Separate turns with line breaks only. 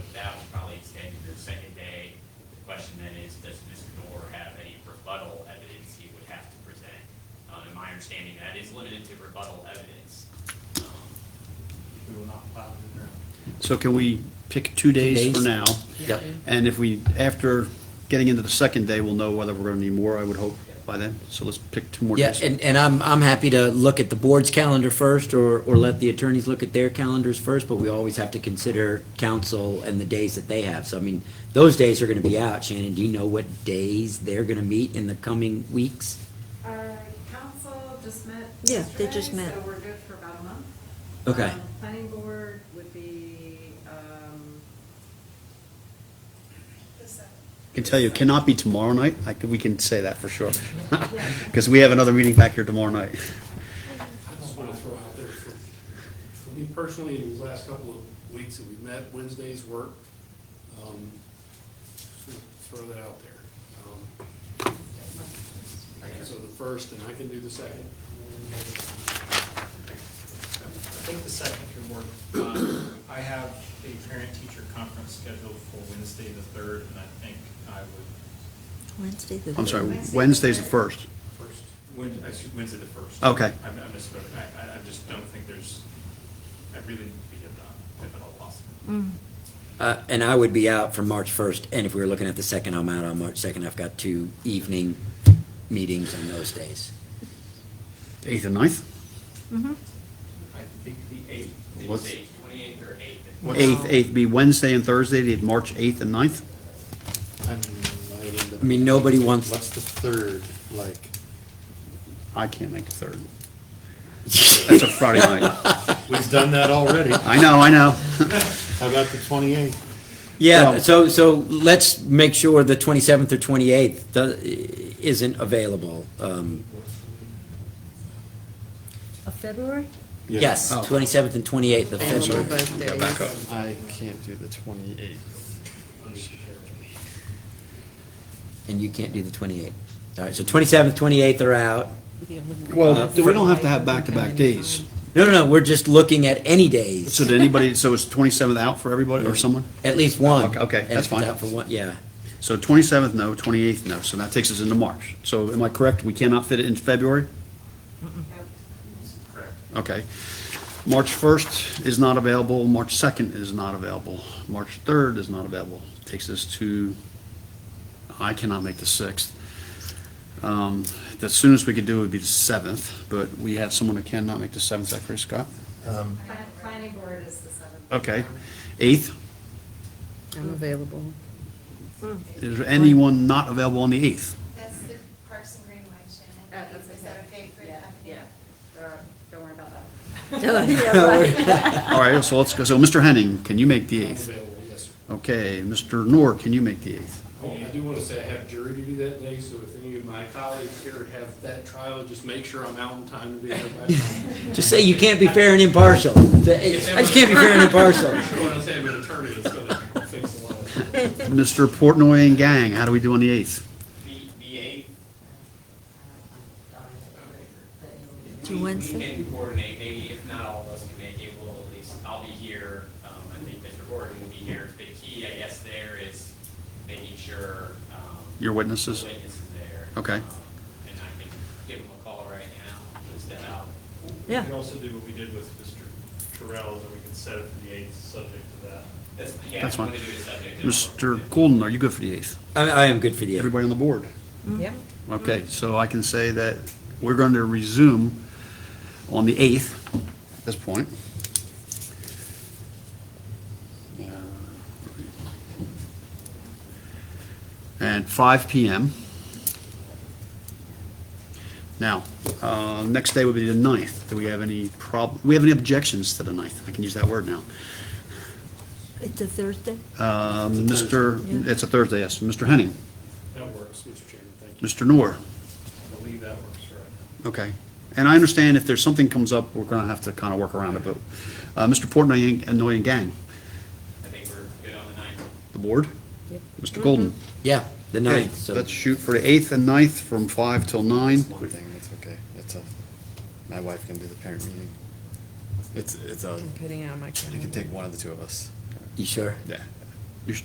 Uh, understanding that is limited to rebuttal evidence. Um,
We will not plow the ground.
So can we pick two days for
days?
now?
Yep.
And if we, after getting into the second day, we'll know whether we're going to need more, I would hope, by then. So let's pick two more
Yeah,
days.
and, and I'm, I'm happy to look at the board's calendar first, or, or let the attorneys look at their calendars first, but we always have to consider council and the days that they have. So, I mean, those days are gonna be out. Shannon, do you know what days they're gonna meet in the coming weeks?
Our Uh, council just met.
Yeah, they just
yesterday,
met.
So we're good for about a month.
Okay.
Um, Planning board would be, um,
I can tell you, it cannot be tomorrow night. I can- we can say that for sure. Because we have another meeting back here tomorrow night.
I just want to throw out there, for, for me personally, in the last couple of weeks that we've met, Wednesdays work. Um, just wanna Throw that out there. Um, I can do the first, and I can do the second.
I think the second could work. Um, I have a parent-teacher conference scheduled for Wednesday the third, and I think I would,
Wednesday the.
I'm sorry,
Wednesday.
Wednesday's the first.
first, Wed- actually, Wednesday the first.
Okay.
I I misspoke. I, I- I just don't think there's, I really need to be at that, if at all possible.
Uh, and I would be out from March first, and if we were looking at the second, I'm out on March second. I've got two evening meetings on those days.
Eighth and ninth?
I think the eighth,
Did you
What's-
say twenty-eighth or eighth?
Eighth, eighth be Wednesday and Thursday, the March eighth and ninth?
I mean, might end up-
I mean, nobody wants-
What's the third, like?
I can't make the third. That's a Friday night.
We've done that already.
I know, I know.
How about the twenty-eighth?
Yeah,
Well-
Uh, so, so let's make sure the twenty-seventh or twenty-eighth uh, isn't available. Um,
Of February?
Yes,
Oh.
twenty-seventh and twenty-eighth of
Available
February.
both days.
I can't do the twenty-eighth.
And you can't do the twenty-eighth. All right, so twenty-seventh, twenty-eighth are out.
Well, we don't have to have back-to-back days.
No, no, no, we're just looking at any days,
So did anybody, so is twenty-seventh out for everybody or someone?
at least one.
Okay, okay,
And
that's
if it's
fine.
out for one- Yeah,
So 27th, no, 28th, no, so that takes us into March. So am I correct, we cannot fit it in February?
correct.
Okay. March 1st is not available, March 2nd is not available, March 3rd is not available. Takes us to, I cannot make the 6th. Um, The soonest we could do would be the 7th, but we have someone who cannot make the 7th, is that correct, Scott?
plan- planning board is the seventh. Um, uh,
Okay. 8th,
I'm available.
is there anyone not available on the 8th?
That's the Parks and Greenway, Shannon.
Uh, that's
Is that
okay.
okay for you?
Yeah, yeah. Or, Don't worry about that.
Oh,
All right, so let's go, so Mr. Henning, can you make the 8th?
Available, yes, sir.
Okay, Mr. Noor, can you make the 8th?
I do want to say I have jury duty that day, so if any of my colleagues here have that trial, just make sure I'm out in time to be there. by-
just say you can't be fair and impartial. I just can't be fair and impartial.
I want to say I'm an attorney, it's going to fix a lot of it.
Mr. Portnoy and gang, how do we do on the 8th?
The, the eighth.
Uh,
To
We-
Wednesday?
We can coordinate, maybe if not all of us can make it, we'll at least, I'll be here, um, I think Mr. Gordon will be here. The key, I guess, there is making sure, um.
Your witnesses?
the Witness is there.
Okay.
Um, And I can give him a call right now, just that out.
Yeah.
We could also do what we did with Mr. Terrell, that we could set it for the eighth, subject to that.
That's, yeah,
That's
if you
fine.
want to do it subject to-
Mr. Golden, are you good for the 8th?
I, I am good for the eighth.
Everybody on the board?
Yep.
Okay, so I can say that we're going to resume on the 8th at this point. And 5 PM. Now, uh, next day would be the 9th. Do we have any prob, we have any objections to the 9th? I can use that word now.
It's a Thursday?
Um, Mr.,
Yeah.
it's a Thursday, yes. Mr. Henning,
That works, Mr. Chairman, thank you.
Mr. Noor.
I believe that works, right?
Okay. And I understand if there's something comes up, we're going to have to kind of work around it, but, uh, Mr. Portnoy and Noy and Gang,
I think we're good on the ninth.
the board?
Yep.
Mr. Golden?
Yeah, the
Okay,
Mm-hmm. ninth, so.
Let's shoot for the 8th and 9th from 5 till 9.
One thing, it's okay, it's a, my wife can do the parent meeting. It's, it's a,
Oh, I'm putting it on my
you can
calendar.
take one of the two of us.
You sure?
Yeah.